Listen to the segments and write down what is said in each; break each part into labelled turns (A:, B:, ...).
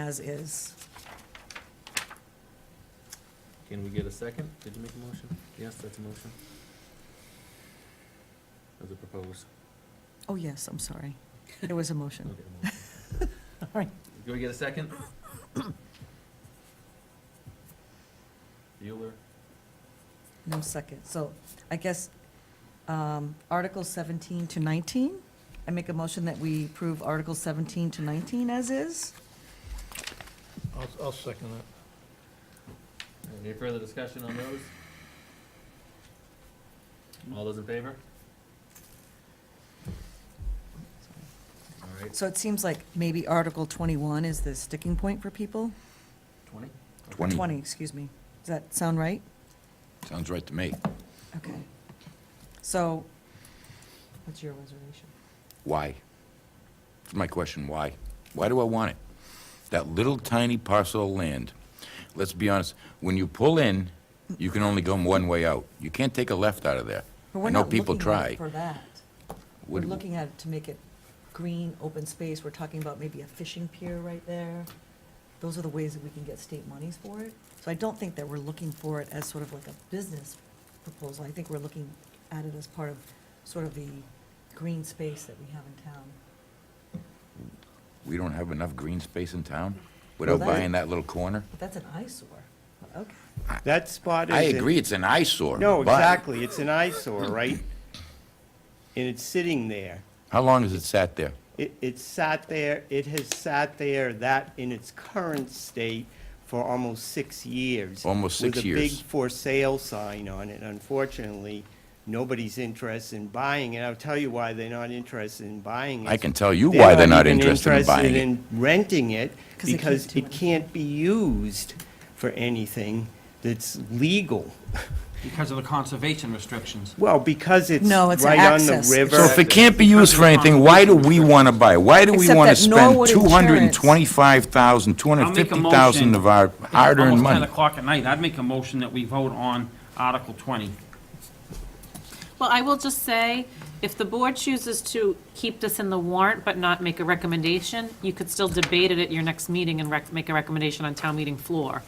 A: as is.
B: Can we get a second? Did you make a motion? Yes, that's a motion. As a proposed,
A: Oh, yes, I'm sorry. There was a motion.
B: okay. a motion.
A: All right.
B: Can we get a second? Bueller,
A: No second. So I guess um, Article 17 to 19, I make a motion that we approve Article 17 to 19 as is.
C: I'll, I'll second that.
B: any further discussion on those? All those in favor? All right,
A: So it seems like maybe Article 21 is the sticking point for people.
B: twenty?
D: Twenty.
A: 20, excuse me. Does that sound right?
D: Sounds right to me.
A: Okay. So what's your reservation?
D: Why? That's my question, why? Why do I want it? That little tiny parcel of land, let's be honest, when you pull in, you can only go one way out. You can't take a left out of there.
A: But we're
D: I know
A: not
D: people
A: looking at it
D: try.
A: For that. We're
D: Would-
A: looking at it to make it green, open space, we're talking about maybe a fishing pier right there. Those are the ways that we can get state monies for it. So I don't think that we're looking for it as sort of like a business proposal. I think we're looking at it as part of, sort of the green space that we have in town.
D: We don't have enough green space in town
A: Well,
D: without
A: that-
D: buying that little corner?
A: But that's an eyesore. Okay,
E: That spot is.
D: I agree, it's an eyesore.
E: No,
D: but
E: exactly. It's an eyesore, right? And it's sitting there.
D: How long has it sat there?
E: It, it sat there, it has sat there, that in its current state, for almost six years.
D: Almost six
E: With a
D: years.
E: big for sale sign on it. Unfortunately, nobody's interested in buying it. I'll tell you why they're not interested in buying it.
D: I can tell you why they're not
E: even
D: interested in buying
E: interested
D: it.
E: in renting it
A: 'Cause they can't
E: because
A: do
E: it can't be used for anything that's legal.
F: Because of the conservation restrictions.
E: Well, because it's
A: No, it's an
E: right on the
A: access.
E: river.
D: So if it can't be used for anything, why do we want to buy? it? Why do we
A: Except
D: want to
A: that
D: spend
A: Norwood
D: two hundred and
A: Insurance-
D: twenty-five thousand, two hundred
F: I'll
D: and
F: make a
D: fifty thousand
F: motion.
D: of our
F: It's
D: hard-earned
F: Almost
D: money?
F: 10 o'clock at night, I'd make a motion that we vote on Article 20.
G: Well, I will just say, if the board chooses to keep this in the warrant but not make a recommendation, you could still debate it at your next meeting and rec- make a recommendation on town meeting floor.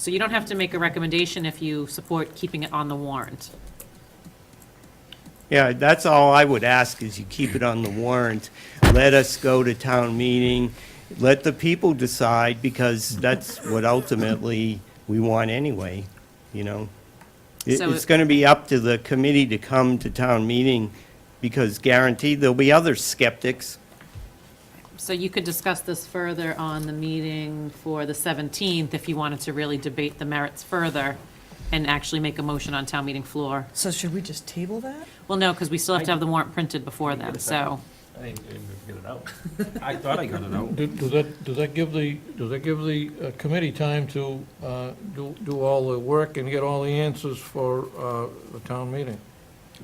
G: So you don't have to make a recommendation if you support keeping it on the warrant.
E: Yeah, that's all I would ask, is you keep it on the warrant. Let us go to town meeting, let the people decide, because that's what ultimately we want anyway, you know? It-
G: So
E: It's
G: it-
E: going to be up to the committee to come to town meeting, because guaranteed, there'll be other skeptics.
G: So you could discuss this further on the meeting for the 17th if you wanted to really debate the merits further and actually make a motion on town meeting floor.
A: so should we just table that?
G: Well, no, because we still have to have the warrant printed before then, so.
B: I didn't, I didn't get it out.
F: I thought I got it out.
C: Do- Does that, does that give the, does that give the uh, committee time to uh, do, do all the work and get all the answers for uh, the town meeting?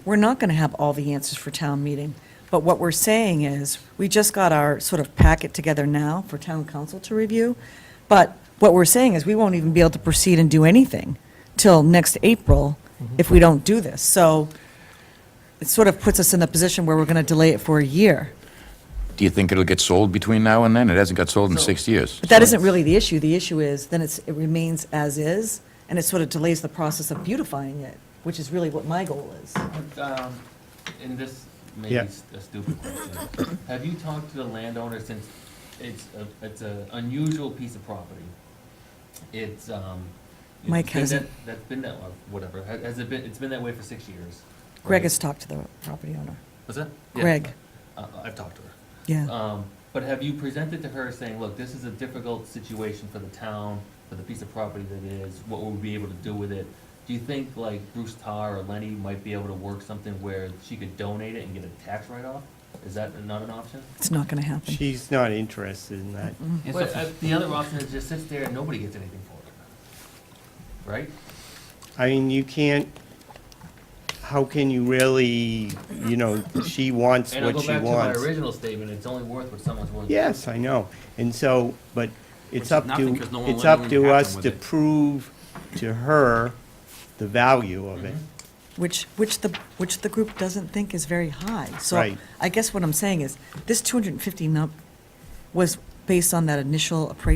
A: we're not going to have all the answers for town meeting, but what we're saying is, we just got our sort of packet together now for town council to review, but what we're saying is, we won't even be able to proceed and do anything till next April if we don't do this. So it sort of puts us in the position where we're going to delay it for a year.
D: Do you think it'll get sold between now and then? It hasn't got sold in
B: So-
D: six years.
A: But that isn't really the issue. The issue is, then it's, it remains as is, and it sort of delays the process of beautifying it, which is really what my goal is.
B: Um, And this may be
E: Yeah.
B: s- a stupid question. Have you talked to the landowner since it's, a- it's an unusual piece of property? It's, um. it's
A: Mike
B: been that-
A: hasn't.
B: That's been that, or whatever, Ha- has it been, it's been that way for six years?
A: Greg has talked to the property owner.
B: What's that? Yeah.
A: Greg,
B: Uh, I've talked to her.
A: yeah.
B: Um, but have you presented to her saying, look, this is a difficult situation for the town, for the piece of property that it is, what we'll be able to do with it? Do you think like Bruce Tar or Lenny might be able to work something where she could donate it and get a tax write-off? Is that not an option?
A: It's not going to happen.
E: She's not interested in that.
F: It's
B: Well,
F: a-
B: uh, the other option is just sits there and nobody gets anything for it. Right?
E: I mean, you can't, how can you really, you know, she wants
B: And I'll
E: what
B: go
E: she
B: back to my
E: wants.
B: original statement, it's only worth what someone's worth.
E: Yes, I know. And so, but
F: Which
E: it's
F: is
E: up
F: nothing
E: to,
F: 'cause no one
E: it's
F: let
E: up
F: anything
E: to
F: happen
E: us
F: with
E: to
F: it.
E: prove to her the value of it.
A: which, which the, which the group doesn't think is very high. So
E: Right.
A: I guess what I'm saying is, this 250 num was based on that initial appraisal